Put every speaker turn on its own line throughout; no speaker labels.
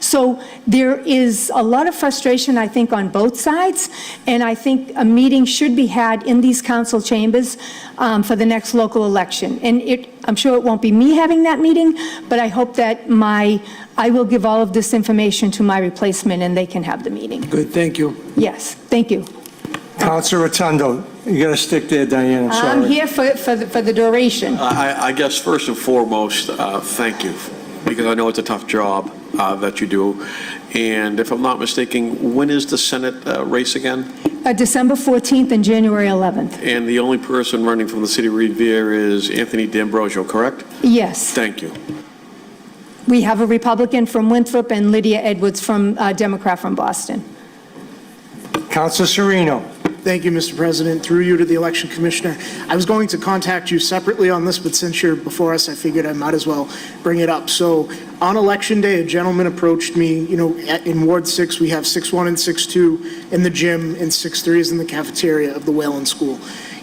So there is a lot of frustration, I think, on both sides, and I think a meeting should be had in these council chambers um, for the next local election. And it, I'm sure it won't be me having that meeting, but I hope that my, I will give all of this information to my replacement, and they can have the meeting.
Good, thank you.
Yes, thank you.
Counselor Rotundo, you got to stick there, Diane, I'm
I'm
sorry.
here for, for the- for the duration.
I, I guess first and foremost, uh, thank you, because I know it's a tough job uh, that you do. And if I'm not mistaken, when is the Senate uh, race again?
Uh, December 14th and January 11th.
And the only person running from the city of Revere is Anthony D'Ambrosio, correct?
Yes.
Thank you.
We have a Republican from Winthrop and Lydia Edwards from, uh, Democrat from Boston.
Counselor Sereno,
Thank you, Mr. President. Through you to the Election Commissioner. I was going to contact you separately on this, but since you're before us, I figured I might as well bring it up. So on Election Day, a gentleman approached me, you know, at- in Ward 6, we have 6-1 and 6-2 in the gym, and 6-3 is in the cafeteria of the Whalen School.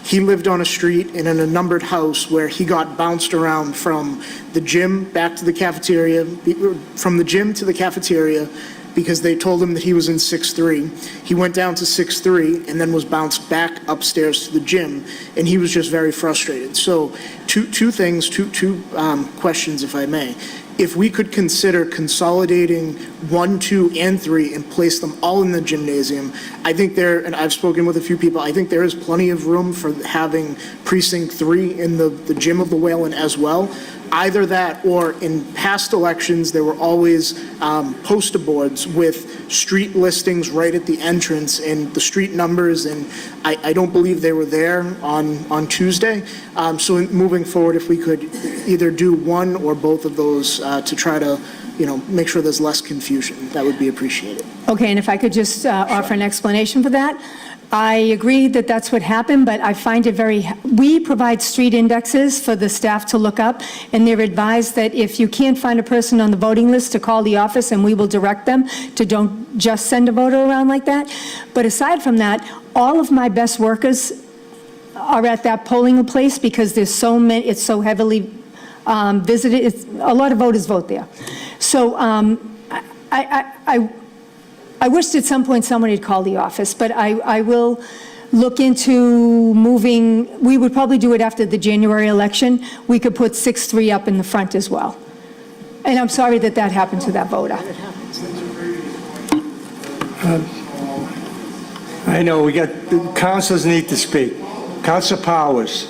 He lived on a street and in a numbered house where he got bounced around from the gym back to the cafeteria, the- from the gym to the cafeteria, because they told him that he was in 6-3. He went down to 6-3 and then was bounced back upstairs to the gym, and he was just very frustrated. So two, two things, two, two um, questions, if I may. If we could consider consolidating 1, 2, and 3 and place them all in the gymnasium, I think there, and I've spoken with a few people, I think there is plenty of room for having precinct 3 in the the gym of the Whalen as well either that or in past elections, there were always um, poster boards with street listings right at the entrance and the street numbers, and I, I don't believe they were there on, on Tuesday. Um, So in- moving forward, if we could either do one or both of those uh, to try to, you know, make sure there's less confusion, that would be appreciated.
Okay, and if I could just uh, offer an explanation for that. I agree that that's what happened, but I find it very, we provide street indexes for the staff to look up, and they're advised that if you can't find a person on the voting list, to call the office, and we will direct them to don't just send a voter around like that. But aside from that, all of my best workers are at that polling place because there's so many, it's so heavily um, visited, it's, a lot of voters vote there. So um, I, I, I I wished at some point someone had called the office, but I, I will look into moving, we would probably do it after the January election. We could put 6-3 up in the front as well. And I'm sorry that that happened to that voter.
Uh, I know, we got, councilors need to speak. Counselor Powers,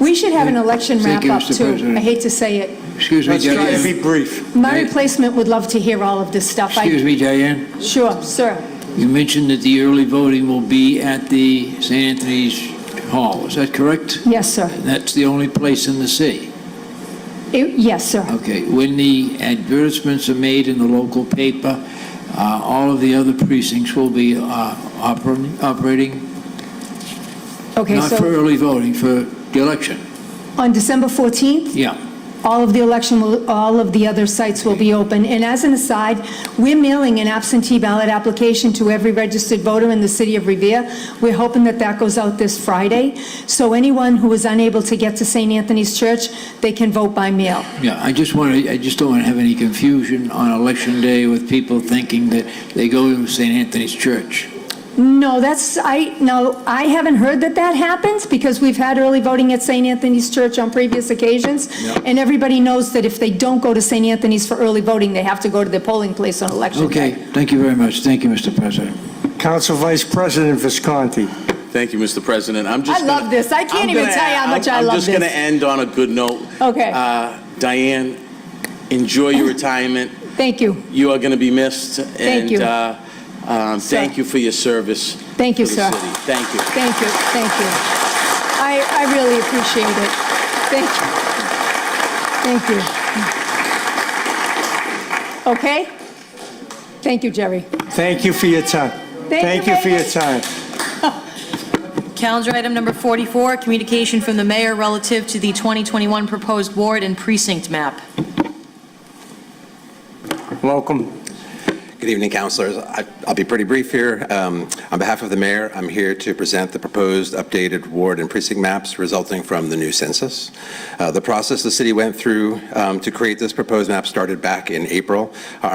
We should have an election
Thank you,
wrap-up
Mr.
too.
President.
I hate to say it.
Excuse me,
let's try to
Diane.
be brief.
My replacement would love to hear all of this stuff. I-
Excuse me, Diane.
Sure, sir.
You mentioned that the early voting will be at the St. Anthony's Hall. Is that correct?
Yes, sir.
That's the only place in the city.
It- Yes, sir.
Okay. When the advertisements are made in the local paper, uh, all of the other precincts will be uh, oper- operating,
Okay,
not for
so
early voting, for the election.
on December 14th,
Yeah.
All of the election, will- all of the other sites will be open. And as an aside, we're mailing an absentee ballot application to every registered voter in the city of Revere. We're hoping that that goes out this Friday. So anyone who is unable to get to St. Anthony's Church, they can vote by mail.
Yeah, I just want to, I just don't want to have any confusion on election day with people thinking that they go to St. Anthony's Church.
No, that's, I, no, I haven't heard that that happens because we've had early voting at St. Anthony's Church on previous occasions. And everybody knows that if they don't go to St. Anthony's for early voting, they have to go to their polling place on election day.
Okay, thank you very much. Thank you, Mr. President.
Council Vice President Visconti.
Thank you, Mr. President. I'm just.
I love
gonna-
this. I can't
I'm
even
gonna-
tell you how much I
I'm-
love
I'm just
this.
going to end on a good note.
Okay.
Uh, Diane, enjoy your retirement.
Thank you.
You are going to be missed.
Thank you.
And uh, um,
Sir.
thank you for your service.
Thank you,
to
sir.
the city. Thank you.
Thank you, thank you. I, I really appreciate it. Thank you. Thank you. Okay? Thank you, Jerry.
Thank you for your time.
Thank you
Thank you for
very
your time.
Calendar item number 44, communication from the mayor relative to the 2021 proposed ward and precinct map.
Welcome.
Good evening, councilors. I- I'll be pretty brief here. Um, On behalf of the mayor, I'm here to present the proposed updated ward and precinct maps resulting from the new census. Uh, The process the city went through um, to create this proposed map started back in April. Our